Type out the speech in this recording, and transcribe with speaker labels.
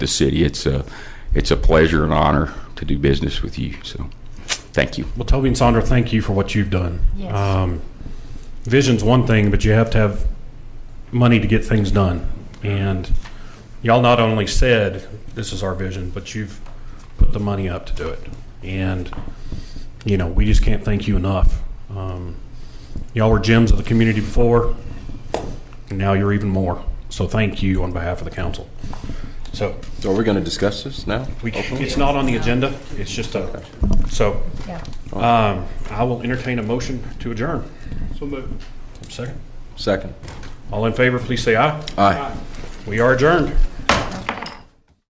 Speaker 1: the city. It's a, it's a pleasure and honor to do business with you. So, thank you.
Speaker 2: Well, Toby and Sandra, thank you for what you've done.
Speaker 3: Yes.
Speaker 2: Um, vision's one thing, but you have to have money to get things done. And y'all not only said this is our vision, but you've put the money up to do it. And you know, we just can't thank you enough. Um, y'all were gems of the community before, and now you're even more. So thank you on behalf of the council. So
Speaker 4: Are we going to discuss this now?
Speaker 2: we, it's not on the agenda. It's just a so.
Speaker 3: Yeah.
Speaker 2: Um, I will entertain a motion to adjourn. So moved. Second.
Speaker 4: Second.
Speaker 2: All in favor, please say aye.
Speaker 4: Aye.
Speaker 2: We are adjourned.